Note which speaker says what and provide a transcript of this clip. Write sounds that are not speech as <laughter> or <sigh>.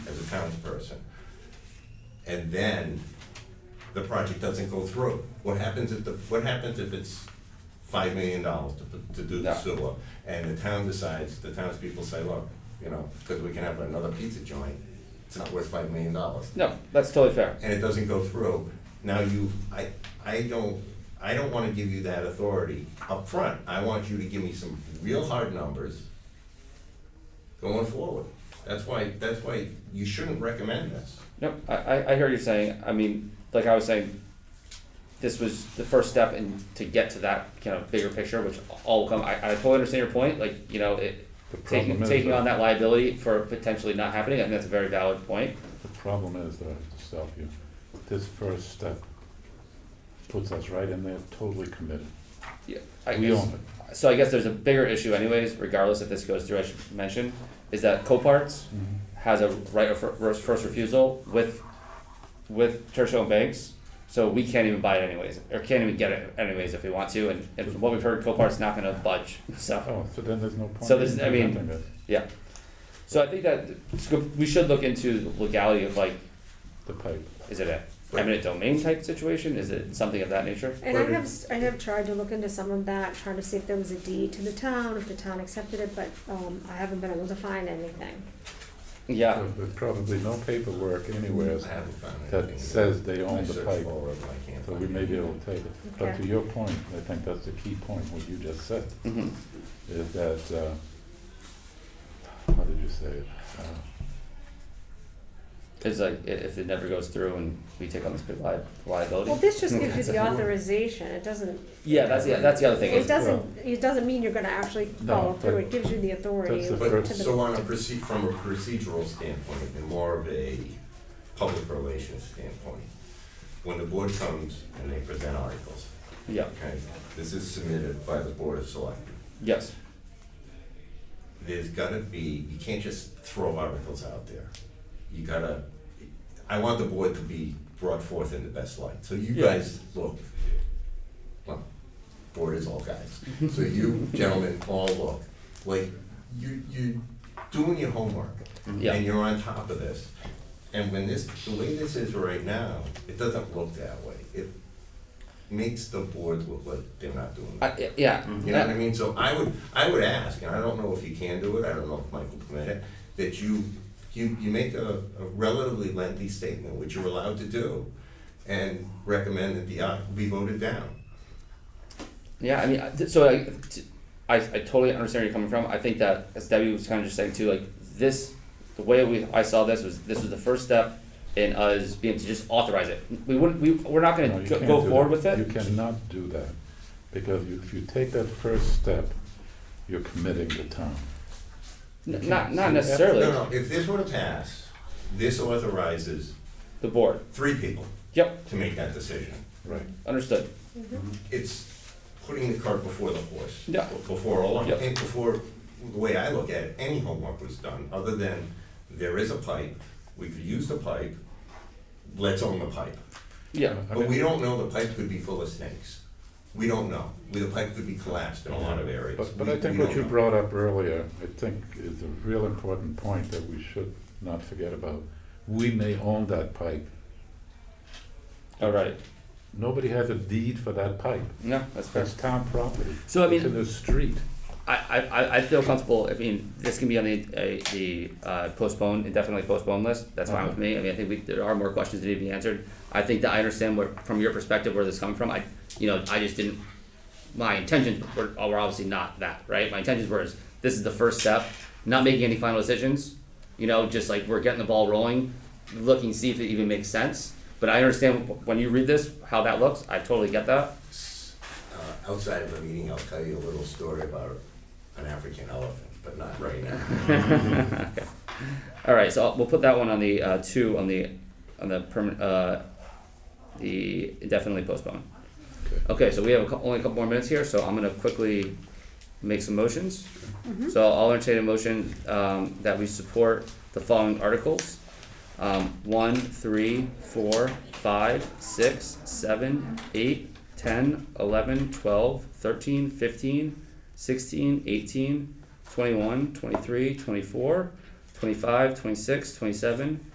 Speaker 1: townsperson. And then the project doesn't go through. What happens if the, what happens if it's five million dollars to, to do the
Speaker 2: Yeah.
Speaker 1: sewer? And the town decides, the townspeople say, look, you know, because we can have another pizza joint, it's not worth five million dollars
Speaker 2: No, that's totally fair.
Speaker 1: and it doesn't go through, now you, I, I don't, I don't wanna give you that authority up front. I want you to give me some real hard numbers going forward. That's why, that's why you shouldn't recommend this.
Speaker 2: No, I, I, I hear you saying, I mean, like I was saying, this was the first step in to get to that kind of bigger picture, which all will come, I, I totally understand your point, like, you know, it,
Speaker 3: The problem
Speaker 2: taking,
Speaker 3: is
Speaker 2: taking
Speaker 3: that-
Speaker 2: on that liability for potentially not happening, I think that's a very valid point.
Speaker 3: The problem is, that I have to stop you, this first step puts us right in there totally committed.
Speaker 2: Yeah, I
Speaker 3: We
Speaker 2: guess-
Speaker 3: own
Speaker 2: So I guess there's a bigger issue anyways, regardless if this goes through, I should mention, is that Coparts has a right of fir- first, first refusal with, with Churchill and Banks. So we can't even buy it anyways, or can't even get it anyways if we want to, and, and from what we've heard, Copart's not gonna budge, <laughs> so,
Speaker 3: Oh, so then there's no point.
Speaker 2: So this-
Speaker 3: in
Speaker 2: I mean-
Speaker 3: presenting this.
Speaker 2: yeah. So I think that, it's good- we should look into the legality of like,
Speaker 3: The pipe.
Speaker 2: is it a eminent domain type situation, is it something of that nature?
Speaker 4: And I
Speaker 1: Where did-
Speaker 4: have, s- I have tried to look into some of that, trying to see if there was a deed to the town, if the town accepted it, but, um, I haven't been able to find anything.
Speaker 2: Yeah,
Speaker 3: So There's probably no paperwork anywhere
Speaker 1: I haven't found
Speaker 3: that
Speaker 1: anything.
Speaker 3: says they
Speaker 1: I
Speaker 3: own the
Speaker 1: searched
Speaker 3: pipe,
Speaker 1: all over, I can't
Speaker 3: so
Speaker 1: find
Speaker 3: we may be
Speaker 1: anything.
Speaker 3: able to take it. But
Speaker 4: Okay.
Speaker 3: to your point, I think that's the key point, what you just said,
Speaker 2: mhm,
Speaker 3: is that, uh, how did you say it? Uh,
Speaker 2: it's like, i- if it never goes through and we take on this big li- liability.
Speaker 4: Well, this just
Speaker 2: Okay.
Speaker 4: gives you the authorization, it doesn't,
Speaker 2: Yeah, that's the, that's the other thing.
Speaker 4: it
Speaker 2: Is,
Speaker 4: doesn't, it doesn't mean you're gonna actually
Speaker 3: No,
Speaker 4: follow through,
Speaker 3: but
Speaker 4: it gives you the authority
Speaker 3: that's
Speaker 4: to
Speaker 3: the
Speaker 1: But
Speaker 3: first-
Speaker 4: the,
Speaker 1: so on a proceed, from a procedural standpoint and more of a public relations standpoint, when the board comes and they present articles,
Speaker 2: yeah.
Speaker 1: okay, this is submitted by the board of selectmen.
Speaker 2: Yes.
Speaker 1: there's gotta be, you can't just throw articles out there. You gotta, I want the board to be brought forth in the best light, so you
Speaker 2: Yeah.
Speaker 1: guys, look. Well, board is all guys, so you gentlemen all look, like, you, you doing your homework.
Speaker 2: Mm-hmm. Yeah.
Speaker 1: And you're on top of this, and when this, the way this is right now, it doesn't look that way. It makes the board look like they're not doing
Speaker 2: I,
Speaker 1: it.
Speaker 2: y- yeah.
Speaker 1: You know what I mean? So I would, I would ask, and I don't know if you can do it, I don't know if Michael permit it, that you, you, you make a, a relatively lengthy statement, which you're allowed to do, and recommend that the article be voted down.
Speaker 2: Yeah, I mean, I- th- so I, t- I, I totally understand where you're coming from. I think that, as Debbie was kind of just saying too, like this, the way we I saw this was this was the first step in us being to just authorize it. We wouldn't, we we're not going
Speaker 3: No,
Speaker 2: to
Speaker 3: you
Speaker 2: go
Speaker 3: can't
Speaker 2: go
Speaker 3: do
Speaker 2: forward with
Speaker 3: that.
Speaker 2: it.
Speaker 3: You cannot do that, because you- if you take that first step, you're committing the town. you
Speaker 2: N-
Speaker 3: can't.
Speaker 2: not not
Speaker 3: So you have to-
Speaker 2: necessarily
Speaker 1: No, no, if this were to pass, this authorizes
Speaker 2: the board.
Speaker 1: three people
Speaker 2: Yep,
Speaker 1: to make that decision.
Speaker 3: Right.
Speaker 2: understood.
Speaker 1: It's putting the cart before the horse.
Speaker 2: Yeah.
Speaker 1: Before all,
Speaker 2: Yeah.
Speaker 1: and before, the way I look at it, any homework was done, other than there is a pipe, we could use the pipe, let's own the pipe.
Speaker 2: Yeah,
Speaker 3: I
Speaker 1: But
Speaker 3: mean-
Speaker 1: we don't know, the pipe could be full of snakes. We don't know. The pipe could be collapsed in a lot of areas.
Speaker 3: But, but
Speaker 1: We-
Speaker 3: I think
Speaker 1: we
Speaker 3: what
Speaker 1: don't
Speaker 3: you
Speaker 1: know.
Speaker 3: brought up earlier, I think is a real important point that we should not forget about. We may own that pipe.
Speaker 2: all right.
Speaker 3: Nobody has a deed for that pipe.
Speaker 2: No, that's fair.
Speaker 3: That's town property.
Speaker 2: So, I mean-
Speaker 3: It's in the street.
Speaker 2: I, I, I- I feel comfortable, I mean, this can be on the, uh, the uh, postponed, indefinitely postponed list, that's fine with me, I mean, I think we, there are more questions that need to be answered. I think that I understand where, from your perspective, where this is coming from, I, you know, I just didn't, my intentions were, were obviously not that, right? My intentions were, is this is the first step, not making any final decisions, you know, just like we're getting the ball rolling, looking, see if it even makes sense. But I understand wh- when you read this, how that looks, I totally get that,
Speaker 1: Uh, Outside of the meeting, I'll tell you a little story about an African elephant, but not right now.
Speaker 2: All right, so I'll- we'll put that one on the uh, two on the on the permanent uh, the indefinitely postponed.
Speaker 3: Okay.
Speaker 2: Okay, so we have a cou- only a couple more minutes here, so I'm gonna quickly make some motions. So I'll entertain a motion um, that we support the following articles: um, one, three, four, five, six, seven, eight, ten, eleven, twelve, thirteen, fifteen, sixteen, eighteen, twenty-one, twenty-three, twenty-four, 25, 26, 27,